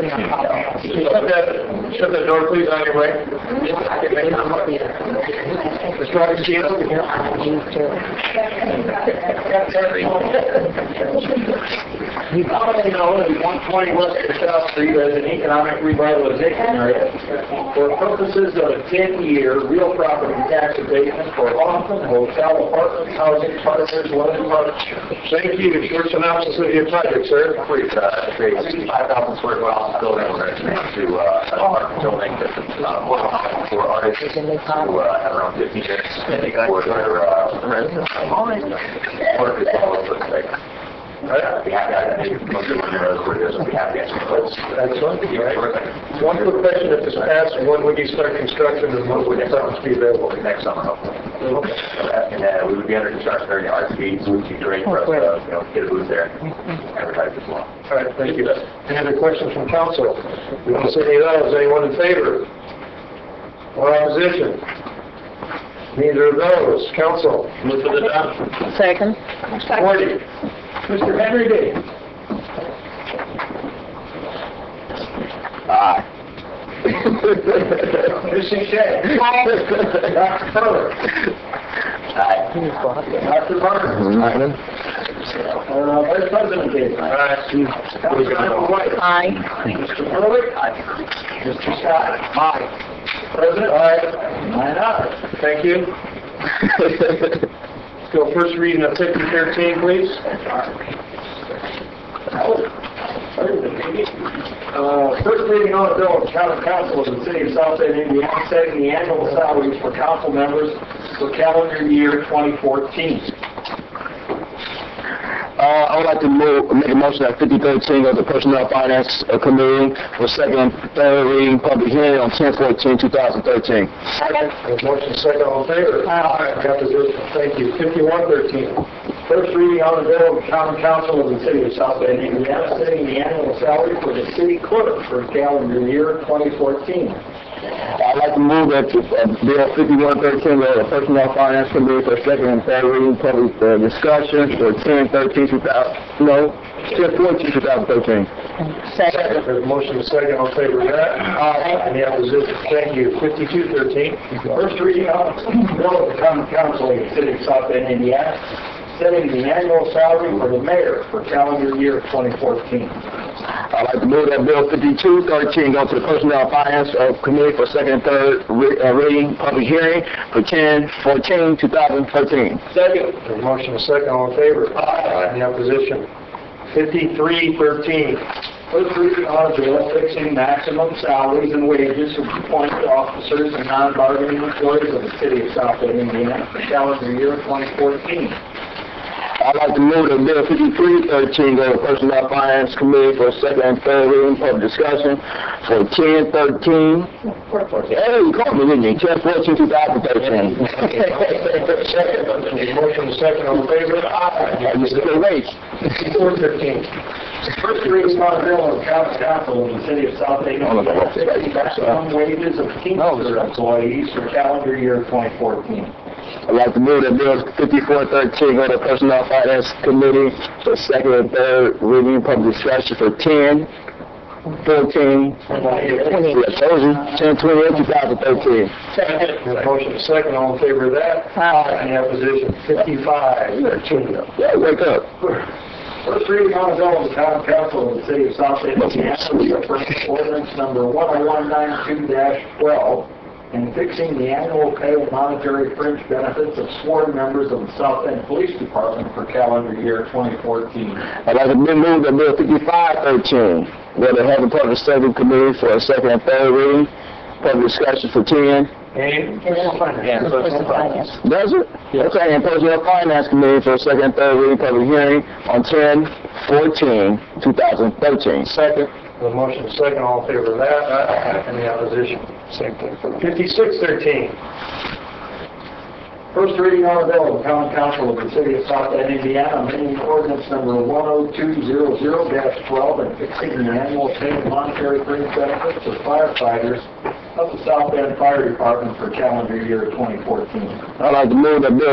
Shut that, shut that door, please, on your way. The strongest chance. You probably know that one twenty West South Street is an economic revitalization area for purposes of a ten-year real property tax abatement for Hoffman Hotel Apartment Housing Partners London Partnership. Thank you, your synopsis of your project, sir. Create, uh, create five thousand square foot office building over next to, uh, an apartment building that's, uh, more than for artists who, uh, have around fifty units for their, uh, rent. Or if it's all over the place. I'd be happy, I'd be, most of them are, I'd be happy to answer those. Excellent. Terrific. One quick question, if this passed, when would you start construction and when would the funds be available? next summer, hopefully. And uh, we would be under construction during the RFP, so it would be great for us to, you know, get a booth there, and advertise as well. All right, thank you. Any other questions from council? We don't see any of those. Anyone in favor? Or opposition? Neither of those. Council? Move for the adoption. Second. Forty. Mr. Henry D. Mr. Shea. Dr. Fuller. Dr. Barnes. Uh, Vice President Gates. Councilmember White. Aye. Mr. Furley? Mr. Scott? Aye. President? Aye. Nine ayes. Thank you. Let's go first reading of 5013, please. Uh, First reading on a bill of county council of the city of South Bend, Indiana, setting the annual salaries for council members for calendar year 2014. Uh, I would like to move, make a motion that 5013 of the Personnel Finance uh, Committee for second and third reading, public hearing on 10/14/2013. Second. A Motion second, all in favor? Aye. Got the vote. Thank you. 5113. First reading on the bill of common council of the city of South Bend, Indiana, setting the annual salary for the city clerk for calendar year 2014. I'd like to move that uh, Bill 5113 of the Personnel Finance Committee for second and third reading, public uh, discussion for 10/13/2000, no, 10/14/2013. Second. There's a motion second, all in favor of that? Aye. Any opposition? Thank you. 5213. First reading on the bill of the common council of the city of South Bend, Indiana, setting the annual salary for the mayor for calendar year 2014. I'd like to move that Bill 5213 go to the Personnel Finance uh, Committee for second and third re- uh, reading, public hearing for 10/14/2013. Second. There's a motion second, all in favor? Aye. Any opposition? 5313. First reading on a bill fixing maximum salaries and wages for appointed officers and non-bargaining employees of the city of South Bend, Indiana, for calendar year 2014. I'd like to move that Bill 5313 go to Personnel Finance Committee for second and third reading, public discussion for 10/13. Hey, you called me, didn't you? 10/14/2013. There's a motion second, all in favor? Aye. Any opposition? You still wait. 5413. First reading on a bill of common council of the city of South Bend, Indiana, fixing maximum wages of Teamster employees for calendar year 2014. I'd like to move that Bill 5413 go to Personnel Finance Committee for second and third reading, public discussion for 10, 14, yeah, those are 10, 28, 2013. There's a motion second, all in favor of that? Aye. Any opposition? 5513. Yeah, wake up. First reading on a bill of the common council of the city of South Bend, Indiana, referring ordinance number 10192-12, and fixing the annual pay of monetary fringe benefits of sworn members of the South Bend Police Department for calendar year 2014. I'd like to move that Bill 5513 go to Health and Public Safety Committee for a second and third reading, public discussion for 10, And Personal finance. Does it? Okay, and Personnel Finance Committee for second and third reading, public hearing on 10, 14, 2013. second. The motion second, all in favor of that? Aye. Any opposition? Same thing for the... 5613. First reading on a bill of the common council of the city of South Bend, Indiana, amending ordinance number 10200-12 and fixing the annual pay of monetary fringe benefits of firefighters of the South Bend Fire Department for calendar year 2014. I'd like to move that Bill